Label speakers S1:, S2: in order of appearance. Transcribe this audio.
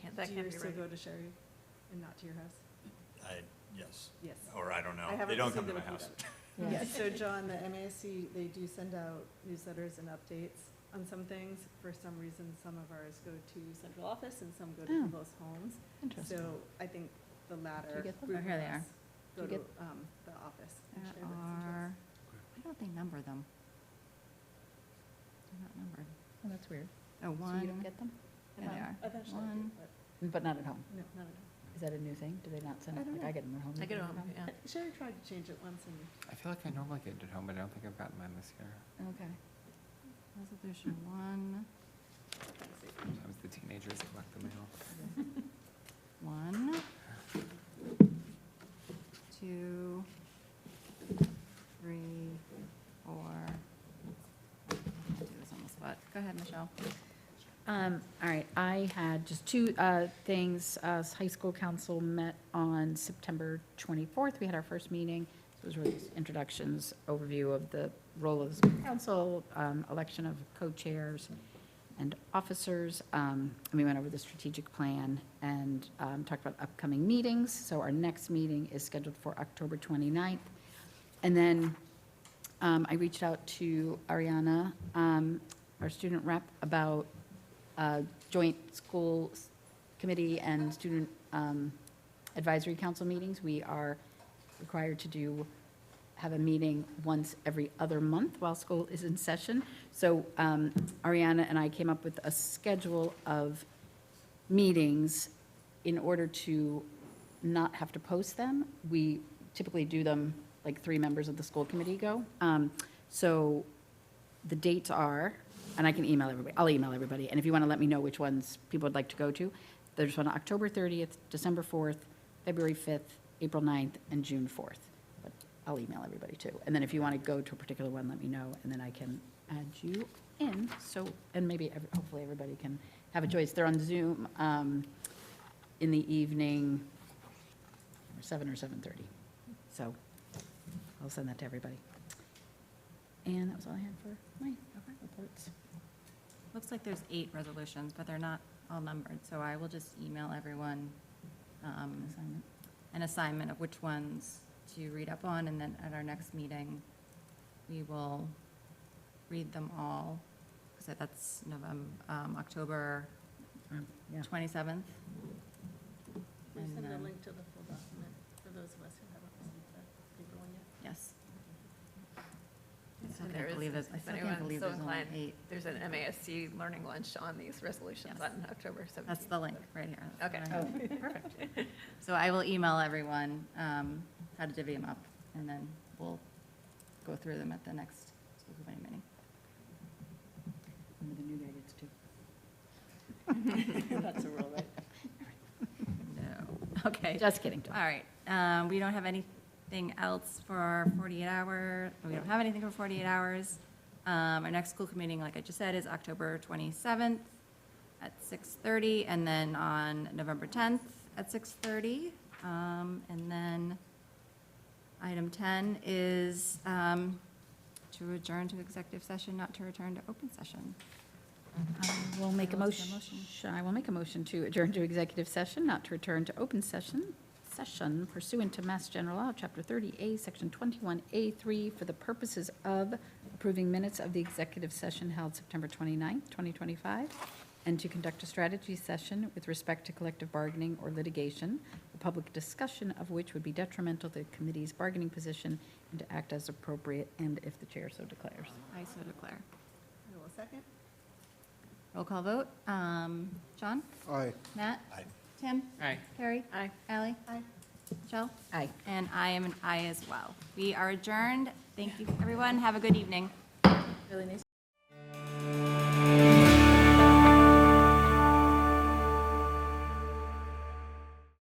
S1: can't,
S2: That
S1: do
S2: can't
S1: yours
S2: be
S1: still
S2: right.
S1: go to Sherry and not to your house?
S3: I, yes,
S1: Yes.
S3: or I don't
S1: I
S3: know. They
S1: haven't
S3: don't come
S1: received
S3: to
S1: them
S3: my
S1: if
S3: house.
S1: you So John, the MASC, they do send out newsletters and updates on some things. For some reason, some of ours go to central office and some go to
S4: Oh.
S1: people's homes. So I think the latter
S4: get them?
S1: group
S2: Oh, here
S1: of
S2: they are.
S1: us go
S4: Do you
S1: to
S4: get-
S1: um, the office. and
S4: There
S1: share with central
S4: are,
S1: office.
S4: why don't they number them? They're not numbered.
S5: Oh, that's weird. Oh, So
S4: Oh,
S5: you don't
S4: one,
S5: get them?
S4: there they
S1: Um,
S4: are.
S1: Eventually, I do,
S4: One.
S1: but
S5: But not at home.
S1: no, not at
S5: Is that a new thing? Do they not send
S1: I
S5: it?
S1: don't
S5: Like,
S1: know.
S5: I get them at
S2: I
S5: home. you
S2: get it,
S5: get them
S2: yeah.
S1: all. Sherry tried to change it once and
S6: I feel like I normally get it at home, but I don't think I've gotten mine this year.
S5: at home? Okay.
S4: resolution one,
S6: Sometimes the teenagers collect the mail.
S4: one, two, three, four. I can't do this on the spot. Go ahead, Michelle.
S5: Um, all right, I had just two, uh, things, uh, high school council met on September twenty-fourth, we had our first meeting. It was really just introductions, overview of the role of the school council, um, election of co-chairs and officers. Um, and we went over the strategic plan and, um, talked about upcoming meetings, so our next meeting is scheduled for October 29th. And then um, I reached out to Ariana, um, our student rep, about uh, joint school s- committee and student um, advisory council meetings. We are required to do, have a meeting once every other month while school is in session. So um, Ariana and I came up with a schedule of meetings in order to not have to post them. We typically do them, like, three members of the school committee go. Um, So the dates are, and I can email everybody, I'll email everybody, and if you want to let me know which ones people would like to go to, there's one October 30th, December 4th, February 5th, April 9th, and June 4th. But I'll email everybody too. And then if you want to go to a particular one, let me know, and then I can add you in, so, and maybe, ev- hopefully, everybody can have a choice. They're on Zoom um, in the evening, seven or 7:30. So I'll send that to everybody. And that was all I had for my reports.
S4: Looks like there's eight resolutions, but they're not all numbered, so I will just email everyone um,
S5: Assignment.
S4: an assignment of which ones to read up on, and then at our next meeting, we will read them all, because that's November, um, October
S5: Um, Yeah.
S4: 27th.
S1: we
S4: And um,
S1: send a
S4: then-
S1: link to the full document for those of us who haven't received the paper one yet.
S4: Yes. I
S2: And
S4: still
S2: there
S4: can't
S2: is-
S4: believe there's, I
S2: if
S4: still can't
S2: anyone's
S4: believe
S2: so
S4: there's only
S2: inclined,
S4: eight.
S2: There's an MASC learning lunch on these resolutions
S4: Yes.
S2: on October 17th.
S4: That's the link, right here. That's
S2: Okay.
S4: what I have. So I will email everyone um, how to divvy them up, and then we'll go through them at the next school committee meeting.
S5: Remember the new guy gets two. That's a rule, right?
S4: No, okay.
S5: Just kidding, Dawn.
S4: All right, um, we don't have anything else for our 48 hour, we don't have anything for 48 hours. Um, Our next school committee, meeting, like I just said, is October 27th at 6:30, and then on November 10th at 6:30. Um, And then item 10 is um, to adjourn to executive session, not to return to open session.
S5: I will Um, make a
S4: Anyone else
S5: motion,
S4: have a
S5: I will make a motion to adjourn to executive session, not to return to open session, session pursuant to Mass General Law, Chapter 30A, Section 21A3, for the purposes of approving minutes of the executive session held September 29th, 2025, and to conduct a strategy session with respect to collective bargaining or litigation, the public discussion of which would be detrimental to the committee's bargaining position, and to act as appropriate, and if the chair so declares.
S4: I so declare.
S1: I will second.
S4: Roll call vote. Um, John?
S7: Aye.
S4: Matt?
S3: I,
S4: Tim?
S6: Aye.
S4: Carrie?
S2: Aye.
S4: Ally?
S1: Aye.
S4: Michelle?
S5: Aye.
S4: And I am an aye as well. We are adjourned. Thank you, everyone. Have a good evening.
S1: Really nice